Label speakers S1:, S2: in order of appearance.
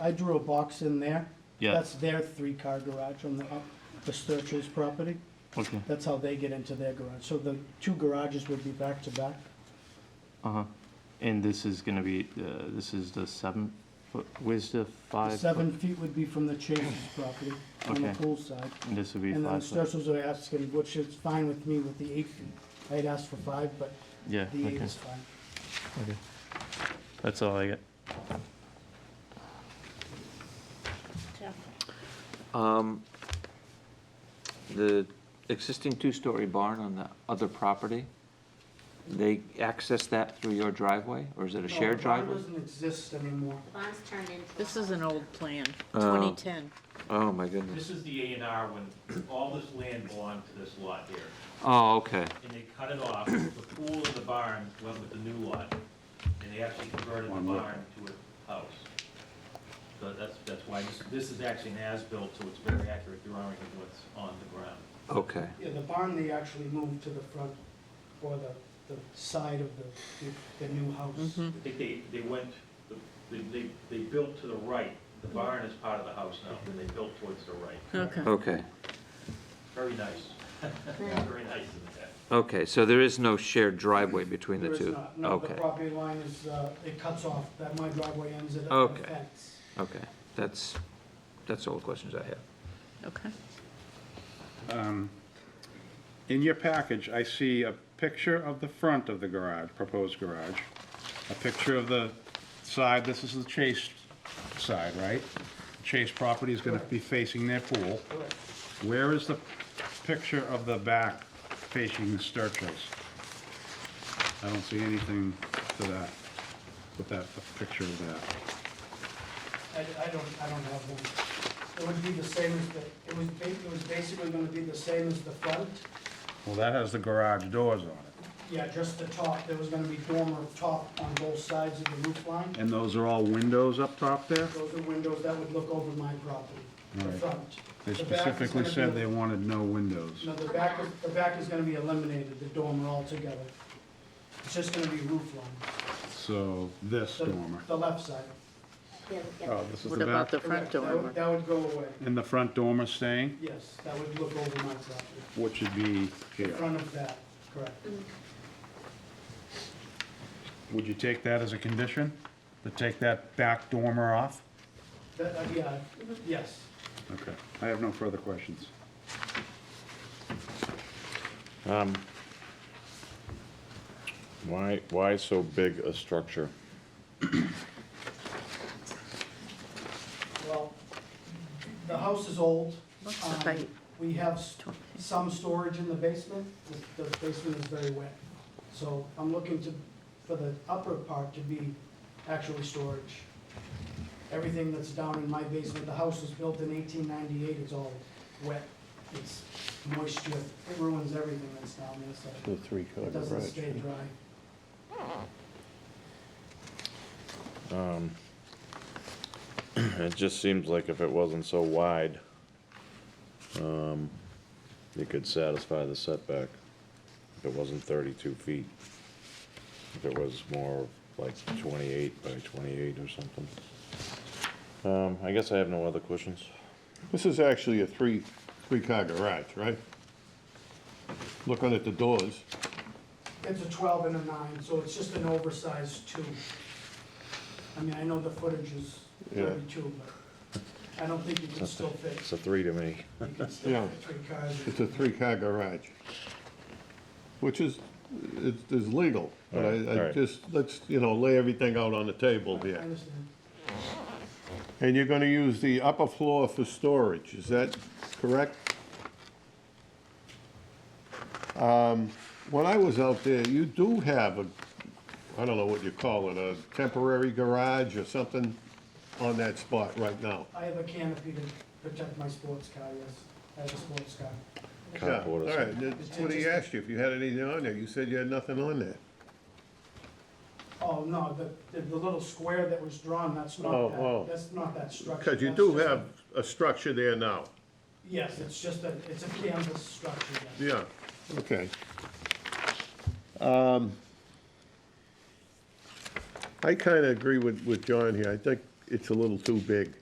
S1: I drew a box in there.
S2: Yeah.
S1: That's their three-car garage on the, up the Sturch's property.
S2: Okay,
S1: That's how they get into their garage. So the two garages would be back to back.
S2: uh-huh. And this is gonna be, uh, this is the seven foot, where's
S1: The
S2: the five? foot?
S1: Seven feet would be from the Chase's property on the
S2: Okay.
S1: pool side.
S2: And this would be
S1: And then the
S2: five foot?
S1: Sturchels are asking, which is fine with me with the eight feet. I'd ask for five, but
S2: Yeah,
S1: the eight
S2: okay,
S1: is fine.
S2: okay. That's all I get.
S3: Jeff,
S4: Um, The existing two-story barn on the other property, they access that through your driveway, or is it a shared
S1: It
S4: driveway?
S1: doesn't exist anymore.
S3: the barn's turned into. a
S5: This is an old plan,
S4: Oh.
S5: 2010.
S4: Oh, my goodness.
S6: This is the A and R when all this land belonged to this lot here,
S4: Oh, okay.
S6: and they cut it off, the pool and the barn went with the new lot, and they actually converted the barn to a house. So that's, that's why, this, this is actually an as-built, so it's very accurate drawing of what's on the ground.
S4: Okay,
S1: Yeah, the barn, they actually moved to the front or the, the side of the, the new house.
S2: Mm-hmm.
S5: Mhm.
S6: I think they, they went, they, they, they built to the right, the barn is part of the house now, and they built towards the right.
S5: Okay.
S4: okay,
S6: Very nice, very nice in that.
S4: okay, so there is no shared driveway between the
S1: There
S4: two?
S1: is not. No, the
S4: Okay,
S1: property line is, uh, it cuts off, that my driveway ends at a
S4: Okay.
S1: fence.
S4: okay, that's, that's all the questions I have.
S5: Okay.
S7: Um, In your package, I see a picture of the front of the garage, proposed garage, a picture of the side, this is the Chase side, right? Chase property is gonna be facing their pool.
S1: Correct.
S7: Where is the picture of the back facing the Sturchills? I don't see anything to that, with that, a picture of that.
S1: I, I don't, I don't have one. It would be the same as the, it was, ba- it was basically gonna be the same as the front.
S7: Well, that has the garage doors on it,
S1: Yeah, just the top, there was gonna be dormer top on both sides of the roof line.
S7: and those are all windows up top there?
S1: Those are windows that would look over my property, the
S7: Right.
S1: front.
S7: They
S1: The back is
S7: specifically
S1: gonna
S7: said
S1: be-
S7: they wanted no windows.
S1: No, the back, is- the back is gonna be eliminated, the dormer altogether. It's just gonna be roof line,
S7: So this
S1: the,
S7: dormer.
S1: the left side.
S3: yeah, yeah.
S7: Oh, this is
S5: What
S7: the
S5: about
S7: back.
S5: the front
S1: Correct. That would-
S5: door?
S1: That would go away,
S7: And the front dormer staying,
S1: yes, that would look over my property,
S7: which would be
S1: in
S7: here.
S1: front of that, correct.
S7: Would you take that as a condition? To take that back dormer off?
S1: That, uh, yeah, yes.
S7: Okay. I have no further questions.
S8: Um, Why, why so big a structure?
S1: Well, the house is old.
S5: What's the
S1: Um,
S5: height?
S1: We have s- some storage in the basement, The- the basement is very wet. So I'm looking to, for the upper part to be actually storage. Everything that's down in my basement, the house was built in eighteen ninety-eight, it's all wet. It's moisture, it ruins everything that's down there, so
S8: The three-car
S1: it doesn't stay dry.
S8: It just seems like if it wasn't so wide, um, it could satisfy the setback. If it wasn't thirty-two feet. If it was more like twenty-eight by twenty-eight or something. Um, I guess I have no other questions.
S9: This is actually a three, three-car garage, right? Looking at the doors,
S1: It's a twelve and a nine, so it's just an oversized two. I mean, I know the footage is
S9: Yeah.
S1: thirty-two, but I don't think you can still fit,
S8: It's a three to me.
S1: you can still
S9: Yeah.
S1: fit three cars.
S9: it's a three-car garage, which is, is is legal, but
S8: Right,
S9: I, I
S8: right.
S9: Uh, just, let's, you know, lay everything out on the table
S1: I
S9: here.
S1: understand.
S9: And you're gonna use the upper floor for storage, is that correct? Um, When I was out there, you do have a, I don't know what you call it, a temporary garage or something on that spot right now.
S1: I have a canopy to protect my sports car, yes, I have a sports car.
S9: Yeah, all
S8: Cardboard or
S9: right,
S8: something.
S9: that's what he asked you, if you had anything on there, you said you had nothing on there.
S1: Oh, no, the, the- the little square that was drawn, that's
S9: Oh,
S1: not
S9: oh.
S1: that, that's not that structure.
S9: Because you
S1: that's
S9: do
S1: just a-
S9: have a structure there now,
S1: Yes, it's just a, it's a canvas structure, yes.
S9: yeah, okay. Um, I kinda agree with, with John here, I think it's a little too big.